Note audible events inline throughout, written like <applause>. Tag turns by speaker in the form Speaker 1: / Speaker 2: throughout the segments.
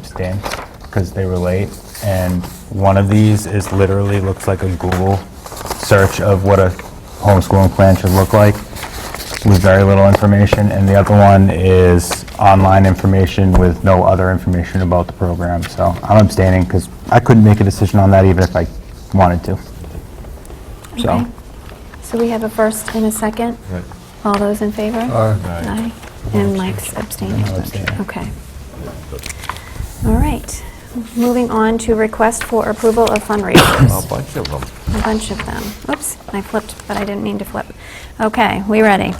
Speaker 1: abstain because they were late. And one of these is literally, looks like a Google search of what a homeschooling plan should look like with very little information. And the other one is online information with no other information about the program. So I'm abstaining because I couldn't make a decision on that even if I wanted to. So.
Speaker 2: Okay. So we have a first and a second.
Speaker 3: Right.
Speaker 2: All those in favor? Aye. And Mike's abstaining.
Speaker 1: I'll abstain.
Speaker 2: Okay. All right. Moving on to request for approval of fundraisers.
Speaker 3: A bunch of them.
Speaker 2: A bunch of them. Oops, I flipped, but I didn't mean to flip. Okay, we ready.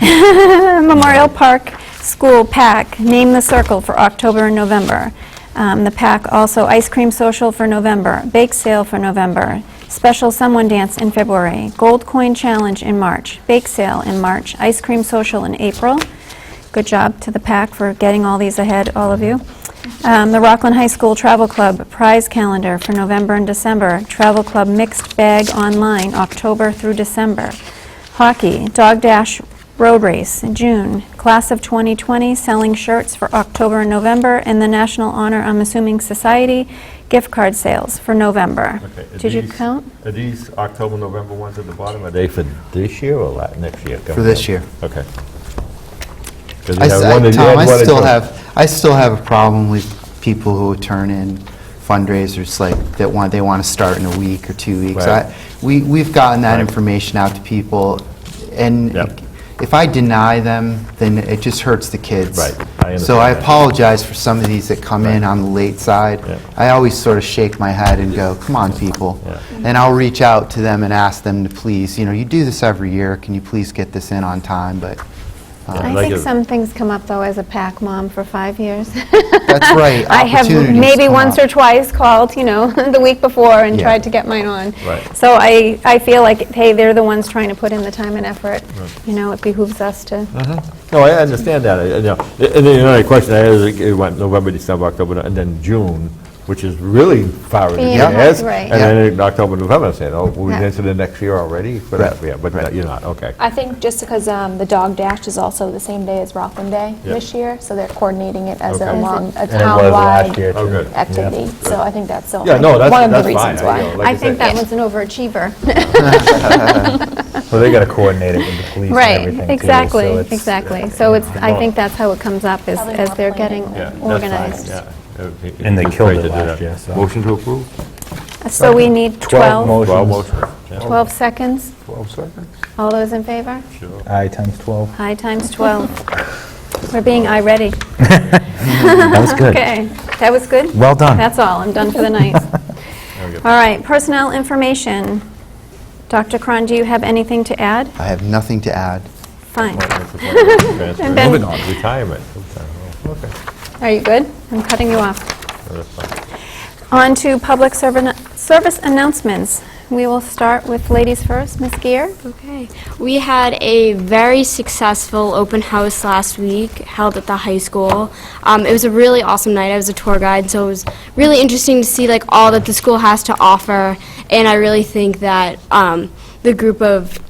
Speaker 2: <laughs> Memorial Park School Pack, Name the Circle for October and November. Um, The pack also Ice Cream Social for November, Bake Sale for November, Special Someone Dance in February, Gold Coin Challenge in March, Bake Sale in March, Ice Cream Social in April. Good job to the pack for getting all these ahead, all of you. Um, The Rockland High School Travel Club Prize Calendar for November and December, Travel Club Mixed Bag Online, October through December. Hockey, Dog Dash Road Race in June, Class of 2020 selling shirts for October and November, and the National Honor, I'm assuming, Society gift card sales for November.
Speaker 3: Okay, are
Speaker 2: Did you
Speaker 3: these-
Speaker 2: count?
Speaker 3: Are these October, November ones at the bottom, are they for this year or la- next year?
Speaker 4: For this year.
Speaker 3: Okay. 'Cause you
Speaker 4: I
Speaker 3: had
Speaker 4: s-
Speaker 3: one
Speaker 4: I-
Speaker 3: that you
Speaker 4: Tom,
Speaker 3: had
Speaker 4: I
Speaker 3: one that
Speaker 4: still
Speaker 3: you-
Speaker 4: have, I still have a problem with people who turn in fundraisers, like, that want, they want to start in a week or two weeks.
Speaker 3: Right.
Speaker 4: I- We, we've gotten that
Speaker 3: Right.
Speaker 4: information out to people, and
Speaker 3: Yep.
Speaker 4: if I deny them, then it just hurts the kids.
Speaker 3: Right. I
Speaker 4: So I
Speaker 3: understand that.
Speaker 4: apologize for some of these that come in
Speaker 3: Right.
Speaker 4: on the late side.
Speaker 3: Yep.
Speaker 4: I always sort of shake my head and go, come on, people.
Speaker 3: Yeah.
Speaker 4: And I'll reach out to them and ask them to please, you know, you do this every year, can you please get this in on time, but... um,
Speaker 3: I
Speaker 2: I
Speaker 3: like
Speaker 2: think
Speaker 3: it.
Speaker 2: some things come up, though, as a pack mom for five years. <laughs>
Speaker 4: That's right.
Speaker 2: I have
Speaker 4: opportunities
Speaker 2: maybe
Speaker 4: come
Speaker 2: once
Speaker 4: up.
Speaker 2: or twice called, you know, <laughs> the week before and
Speaker 4: Yeah.
Speaker 2: tried to get mine on.
Speaker 3: Right.
Speaker 2: So I, I feel like, hey, they're the ones trying to put in the time and effort. You know, it behooves us to,
Speaker 3: Uh-huh. No, I understand that, I- I know. And then another question, I had is, like, it went November, December, October, and then June, which is really far in
Speaker 2: Yeah,
Speaker 3: advance.
Speaker 2: right.
Speaker 3: And then in October, November, I'm saying, oh, we're
Speaker 2: Yeah.
Speaker 3: into the next year already? But,
Speaker 4: Right.
Speaker 3: yeah, but you're not, okay.
Speaker 5: I think just because um, the Dog Dash is also the same day as Rockland Day
Speaker 3: Yeah.
Speaker 5: this year, so they're coordinating it as a
Speaker 3: Okay.
Speaker 5: long, a
Speaker 1: And it was last year,
Speaker 3: Oh,
Speaker 5: town-wide
Speaker 1: too.
Speaker 3: good.
Speaker 5: activity. So I think that's so-
Speaker 3: Yeah, no, that's, that's fine.
Speaker 5: one of the reasons
Speaker 3: I-
Speaker 5: why.
Speaker 3: you know, like
Speaker 2: I
Speaker 3: said,
Speaker 2: think that one's an overachiever.
Speaker 1: Well, they got to coordinate it with the police and
Speaker 2: <laughs> Right,
Speaker 1: everything. too, so
Speaker 2: exactly,
Speaker 1: it's-
Speaker 2: exactly. So it's, I
Speaker 3: uh, Yeah.
Speaker 2: think that's how it comes up, is
Speaker 5: Probably
Speaker 2: as
Speaker 5: more
Speaker 2: they're getting
Speaker 5: planning.
Speaker 3: Yeah, that's fine,
Speaker 2: organized.
Speaker 3: yeah. It would be-
Speaker 1: And they
Speaker 3: it's
Speaker 1: killed
Speaker 3: great
Speaker 1: it
Speaker 3: to do
Speaker 1: last
Speaker 3: that.
Speaker 1: year, so-
Speaker 3: Motion to approve?
Speaker 2: Uh, So we need 12,
Speaker 1: Motion.
Speaker 3: Twelve motions. yeah.
Speaker 2: 12 seconds?
Speaker 3: Twelve seconds?
Speaker 2: All those in favor?
Speaker 3: Sure.
Speaker 1: I times 12.
Speaker 2: Aye times 12. We're being aye-ready.
Speaker 1: That was good.
Speaker 2: <laughs> Okay, that was good?
Speaker 1: Well done.
Speaker 2: That's all, I'm done for the night. All right, personnel information. Dr. Cron, do you have anything to add?
Speaker 4: I have nothing to add.
Speaker 2: Fine. then-
Speaker 3: Moving on. Retirement. Okay,
Speaker 2: Are you good? I'm cutting you off.
Speaker 3: that's fine.
Speaker 2: On to public servant- service announcements. We will start with ladies first, Ms. Gear.
Speaker 6: Okay. We had a very successful open house last week held at the high school. Um, it was a really awesome night. I was a tour guide, so it was really interesting to see like all that the school has to offer. And I really think that um, the group of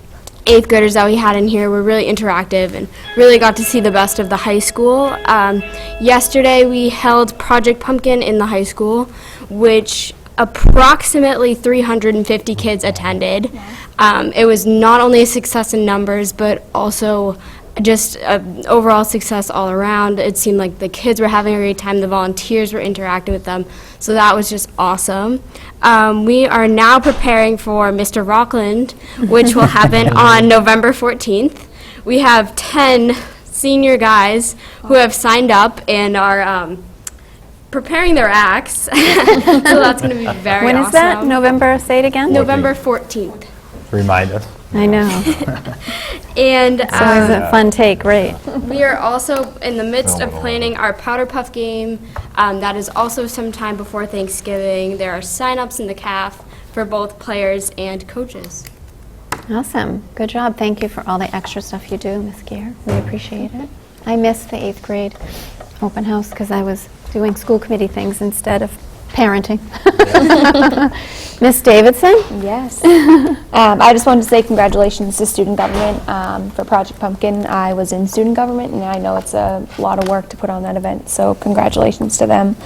Speaker 6: eighth graders that we had in here were really interactive and really got to see the best of the high school. Um, yesterday we held Project Pumpkin in the high school, which approximately 350 kids attended. Um, it was not only a success in numbers, but also just uh, overall success all around. It seemed like the kids were having a great time, the volunteers were interacting with them, so that was just awesome. Um, we are now preparing for Mr. Rockland, which will happen on November 14th. We have 10 senior guys who have signed up and are um, preparing their acts, <laughs> so that's going to be very
Speaker 2: When is that?
Speaker 6: awesome.
Speaker 2: November, say it again?
Speaker 6: November 14th.
Speaker 1: Remind us.
Speaker 2: I know.
Speaker 6: And
Speaker 2: It's always a fun take, right?
Speaker 6: We are also in the midst of planning our Powder Puff game. Um, that is also sometime before Thanksgiving. There are sign-ups in the CAF for both players and coaches.
Speaker 2: Awesome. Good job. Thank you for all the extra stuff you do, Ms. Gear. We appreciate it. I missed the eighth grade open house because I was doing school committee things instead of parenting. <laughs> Miss Davidson?
Speaker 5: Yes. <laughs> Um, I just wanted to say congratulations to student government um, for Project Pumpkin. I was in student government, and I know it's a lot of work to put on that event, so congratulations to them.